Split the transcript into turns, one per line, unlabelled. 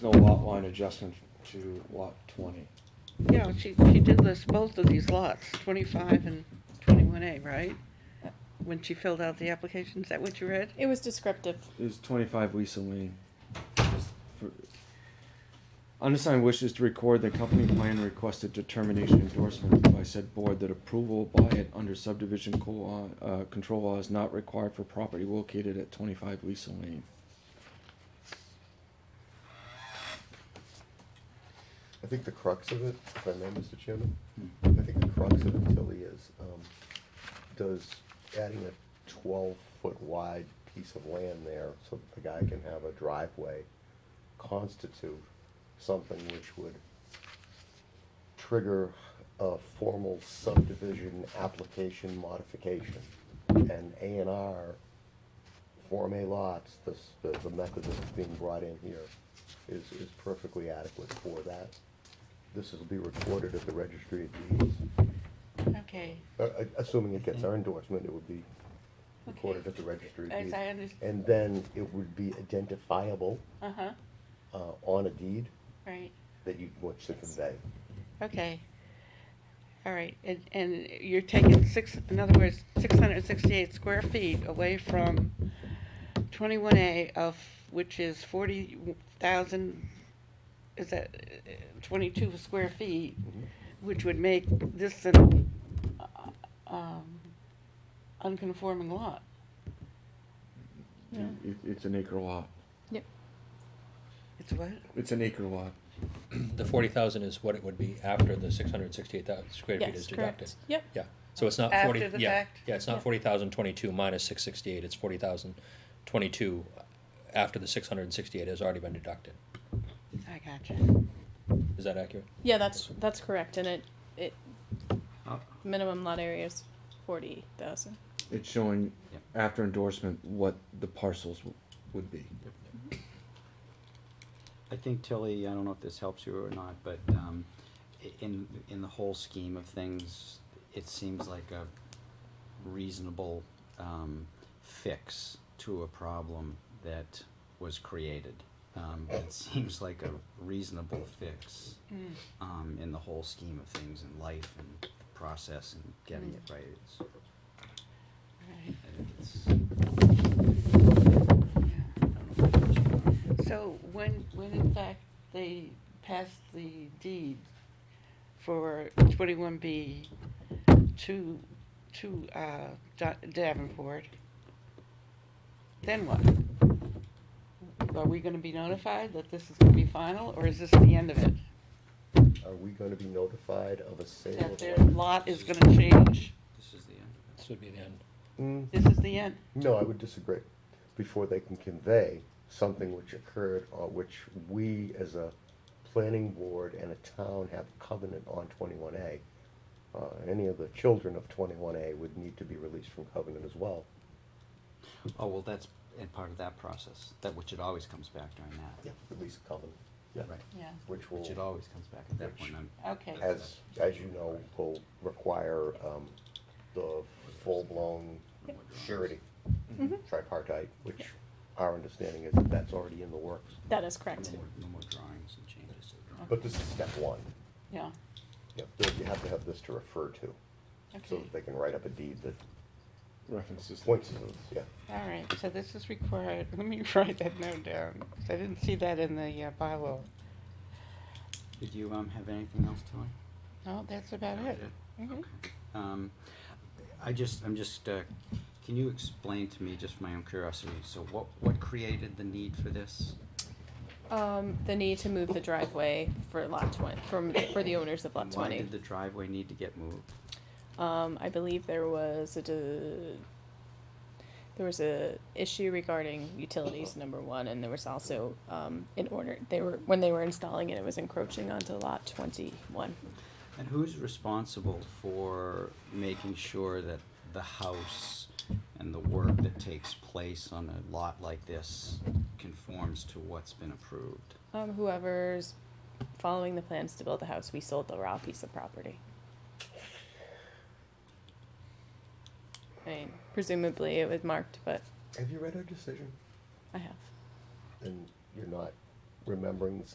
no lot line adjustment to lot twenty.
Yeah, she, she did this, both of these lots, twenty-five and twenty-one A, right? When she filled out the application, is that what you read?
It was descriptive.
It was twenty-five Lisa Lane. Just for- Undersigned wishes to record the company plan requested determination endorsement by said board that approval by it under subdivision co- uh, control law is not required for property located at twenty-five Lisa Lane.
I think the crux of it, if I may, Mr. Chairman, I think the crux of it, Tilly, is, um, does adding a twelve-foot wide piece of land there so that the guy can have a driveway constitute something which would trigger a formal subdivision application modification? And A and R, Form A lots, the, s- the- the method that's being brought in here is, is perfectly adequate for that. This will be recorded at the registry of deeds.
Okay,
Uh, uh, Assuming it gets our endorsement, it would be recorded at the registry of
as
deeds.
I understand,
And then it would be identifiable
uh-huh,
uh, on a deed
right,
that you want to convey.
okay. All right, and, and you're taking six, in other words, six hundred and sixty-eight square feet away from twenty-one A of, which is forty thousand, is that uh, twenty-two square feet? which would make this an uh, um, unconforming lot.
Yeah.
It, it's an acre lot.
It's what?
It's an acre lot.
The forty thousand is what it would be after the six hundred sixty-eight thousand square feet
Yes,
is deducted.
correct. Yep.
Yeah, so it's not
After
forty,
the
yeah,
fact?
yeah, it's
Yeah.
not forty thousand twenty-two minus six sixty-eight, it's forty thousand twenty-two after the six hundred and sixty-eight has already been deducted.
I gotcha.
Is that accurate?
Yeah, that's that's correct. And it it
Uh,
minimum lot area is forty thousand.
It's showing after endorsement what the parcels w- would be.
I think Tilly, I don't know if this helps you or not, but um, i- in, in the whole scheme of things, it seems like a reasonable um, fix to a problem that was created. Um, It seems like a reasonable fix
Mm.
um, in the whole scheme of things in life and the process and getting it right. It's-
Right,
I think it's-
yeah.
I don't know if it helps you or not.
So when, when in fact they passed the deed for twenty-one B to, to, uh, Da- Davenport, then what? Are we gonna be notified that this is gonna be final, or is this the end of it?
Are we gonna be notified of a sale
That
of
their
land?
lot is gonna change?
This is the end of it.
This would be the end.
Mm,
This is the end?
No, I would disagree. Before they can convey something which occurred or which we as a planning board and a town have covenant on twenty-one A. Uh, any of the children of twenty-one A would need to be released from covenant as well.
Oh, well, that's, and part of that process, that, which it always comes back during that.
Release of covenant.
Right.
Yeah,
Which will,
Which it always comes back at that
Which-
point. I'm-
okay,
as, as you know, will require, um, the full-blown surety,
Mm-hmm.
Mm-hmm.
tripartite, which our understanding is that that's already in the works.
That is correct.
No more, no more drawings and changes to the drawings.
But this is step one.
yeah,
Yep, there- you have to have this to refer to, so
okay,
that they can write up a deed that
References.
points to this, yeah.
all right, so this is required, let me write that note down, 'cause I didn't see that in the uh, bylaw.
Did you, um, have anything else, Tilly?
No, that's about
That
it.
was
Mhm.
Okay. Um, I just, I'm just, uh, can you explain to me, just for my own curiosity, so what, what created the need for this?
Um, the need to move the driveway for lot twenty from for the owners of lot
Why
twenty.
did the driveway need to get moved?
Um, I believe there was a de- there was a issue regarding utilities number one, and there was also um, in order they were when they were installing it, it was encroaching onto lot twenty one.
And who's responsible for making sure that the house and the work that takes place on a lot like this conforms to what's been approved?
Um, whoever's following the plans to build the house, we sold the raw piece of property. I mean, presumably it was marked, but
Have you read our decision?
I have.
And you're not remembering the